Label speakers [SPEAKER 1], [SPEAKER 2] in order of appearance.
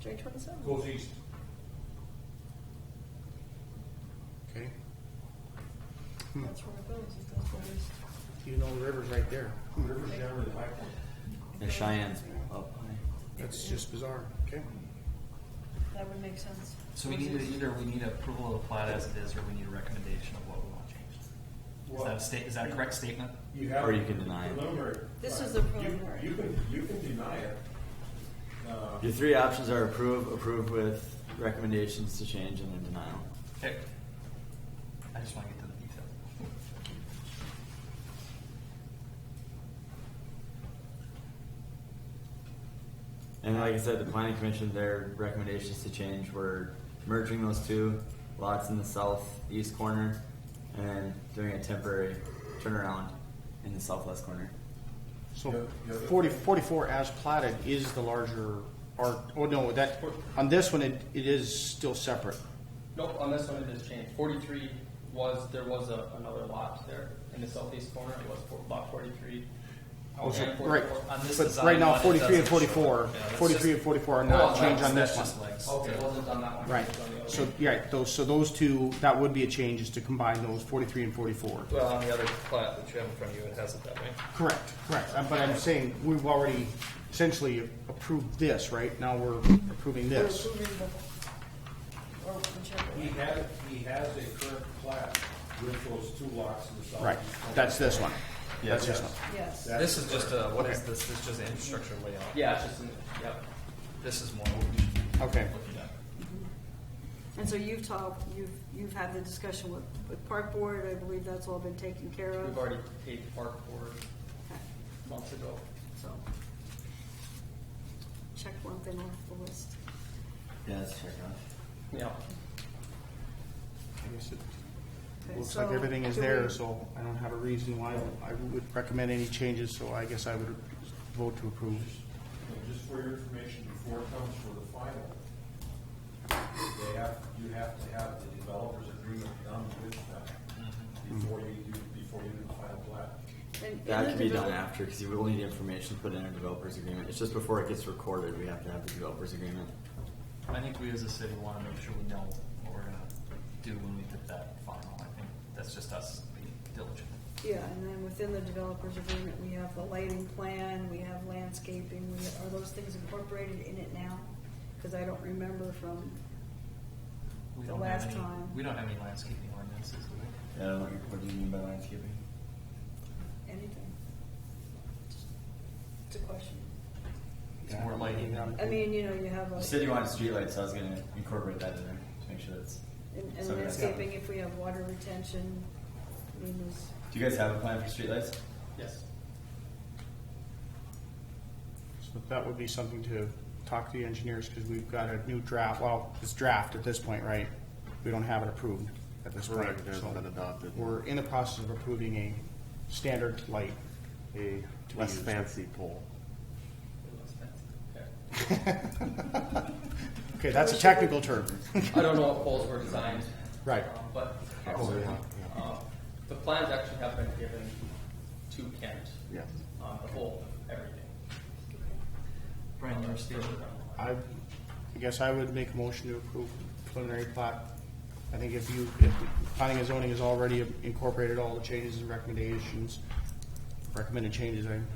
[SPEAKER 1] J twenty-seven.
[SPEAKER 2] Goes east.
[SPEAKER 3] Okay,
[SPEAKER 1] That's where it goes, it goes west.
[SPEAKER 3] even though the river's right there.
[SPEAKER 2] River's down to the high point.
[SPEAKER 4] The Cheyenne's Oh. up high.
[SPEAKER 3] That's just bizarre. Okay.
[SPEAKER 1] That would make sense.
[SPEAKER 5] So we need to, either we need approval of the plat as it is, or we need a recommendation of what we want changed. Is that a state, is that a correct statement?
[SPEAKER 2] have
[SPEAKER 4] Or you can deny it.
[SPEAKER 2] Preliminary.
[SPEAKER 1] This
[SPEAKER 2] plat.
[SPEAKER 1] is a
[SPEAKER 2] You-
[SPEAKER 1] preliminary.
[SPEAKER 2] You can, you can deny it. Uh,
[SPEAKER 4] Your three options are approve, approve with recommendations to change, and then denial.
[SPEAKER 5] Okay. I just wanna get to the detail.
[SPEAKER 4] And like I said, the planning commission, their recommendations to change were merging those two lots in the southeast corner and then doing a temporary turnaround in the southwest corner.
[SPEAKER 2] Yeah,
[SPEAKER 3] So
[SPEAKER 2] yeah, that-
[SPEAKER 3] 40, 44 as platted is the larger, or, oh no, that, on this one, it, it is still separate.
[SPEAKER 6] Nope, on this one it is changed. Forty-three was, there was a, another lot there in the southeast corner, it was for lot forty-three.
[SPEAKER 3] Oh, so-
[SPEAKER 6] And
[SPEAKER 3] right.
[SPEAKER 6] 44.
[SPEAKER 5] On this
[SPEAKER 3] But
[SPEAKER 5] design
[SPEAKER 3] right now,
[SPEAKER 5] one, it
[SPEAKER 3] 43 and
[SPEAKER 5] doesn't show it.
[SPEAKER 3] 44,
[SPEAKER 5] Yeah, that's
[SPEAKER 3] 43
[SPEAKER 5] just-
[SPEAKER 3] and 44 are
[SPEAKER 6] Oh,
[SPEAKER 3] not
[SPEAKER 6] that's-
[SPEAKER 3] changed on
[SPEAKER 5] That's
[SPEAKER 3] this
[SPEAKER 5] just
[SPEAKER 3] one.
[SPEAKER 5] legs.
[SPEAKER 6] Okay, it wasn't on that one. it
[SPEAKER 3] Right.
[SPEAKER 6] was on the other
[SPEAKER 3] So,
[SPEAKER 6] one.
[SPEAKER 3] yeah, those, so those two, that would be a change is to combine those 43 and 44.
[SPEAKER 6] Well, on the other plat that you have in front of you, it has it that way.
[SPEAKER 3] Correct, correct. Uh, But I'm saying we've already essentially approved this, right? Now we're approving
[SPEAKER 1] We're
[SPEAKER 3] this.
[SPEAKER 1] approving the, or whichever.
[SPEAKER 2] He has, he has a current plat with those two lots in the south.
[SPEAKER 3] Right, that's this one. That's
[SPEAKER 2] Yes.
[SPEAKER 3] this one.
[SPEAKER 1] Yes.
[SPEAKER 2] That-
[SPEAKER 5] This is just a, what is this? This is just an infrastructure layout.
[SPEAKER 6] Yeah, it's just, in the- yep.
[SPEAKER 5] This is more what we should be
[SPEAKER 3] Okay.
[SPEAKER 5] looking at.
[SPEAKER 1] And so you've talked, you've, you've had the discussion with, with park board, I believe that's all been taken care of.
[SPEAKER 6] We've already paid the park board
[SPEAKER 1] Okay,
[SPEAKER 6] months ago.
[SPEAKER 1] So, check one thing off the list.
[SPEAKER 4] Yeah, that's check off.
[SPEAKER 6] Yeah.
[SPEAKER 3] I guess it
[SPEAKER 1] Okay,
[SPEAKER 3] Looks
[SPEAKER 1] so
[SPEAKER 3] like everything is
[SPEAKER 1] do we-
[SPEAKER 3] there, so I don't have a reason why I would recommend any changes, so I guess I would vote to approve.
[SPEAKER 2] And Just for your information, before it comes for the final, they have, you have to have the developer's agreement done with them before you do, before you do the final plat.
[SPEAKER 1] and-
[SPEAKER 4] That
[SPEAKER 1] and
[SPEAKER 4] can
[SPEAKER 1] the
[SPEAKER 4] be done
[SPEAKER 1] develop-
[SPEAKER 4] after, because you will need information to put in a developer's agreement. It's just before it gets recorded, we have to have the developer's agreement.
[SPEAKER 5] I think we as a city wanna make sure we know what we're gonna do when we hit that final. I think that's just us being diligent.
[SPEAKER 1] Yeah, and then within the developer's agreement, we have the lighting plan, we have landscaping, we, are those things incorporated in it now? Cause I don't remember from,
[SPEAKER 5] We
[SPEAKER 1] The
[SPEAKER 5] don't have
[SPEAKER 1] last
[SPEAKER 5] any-
[SPEAKER 1] time.
[SPEAKER 5] We don't have any landscaping ordinances, do we?
[SPEAKER 4] Yeah, what do you mean by landscaping?
[SPEAKER 1] anything. It's a question.
[SPEAKER 5] It's more lighting.
[SPEAKER 1] I mean, you know, you have
[SPEAKER 4] You
[SPEAKER 1] like,
[SPEAKER 4] said you wanted streetlights, so I was gonna incorporate that in there to make sure that's.
[SPEAKER 1] in- in
[SPEAKER 4] so that's-
[SPEAKER 1] landscaping, if we have water retention, I mean, there's,
[SPEAKER 4] Do you guys have a plan for streetlights?
[SPEAKER 6] Yes.
[SPEAKER 3] So that would be something to talk to the engineers, because we've got a new draft, well, it's draft at this point, right? We don't have it approved at this point.
[SPEAKER 7] Correct, it hasn't
[SPEAKER 3] so
[SPEAKER 7] been adopted.
[SPEAKER 3] We're in the process of approving a standard light.
[SPEAKER 7] a
[SPEAKER 3] To
[SPEAKER 7] less
[SPEAKER 3] use.
[SPEAKER 7] fancy pole.
[SPEAKER 6] It was fancy. Okay.
[SPEAKER 3] Okay, that's a technical term.
[SPEAKER 6] I don't know what poles were designed.
[SPEAKER 3] Right.
[SPEAKER 6] um, But,
[SPEAKER 3] Oh, yeah,
[SPEAKER 6] um, the plans actually have been given to Kent.
[SPEAKER 7] Yeah.
[SPEAKER 6] On the whole, everything.
[SPEAKER 5] Brian, you're stating.
[SPEAKER 6] Um,
[SPEAKER 3] I, I guess I would make a motion to approve preliminary plat. I think if you, if planning and zoning has already incorporated all the changes and recommendations, recommended changes, I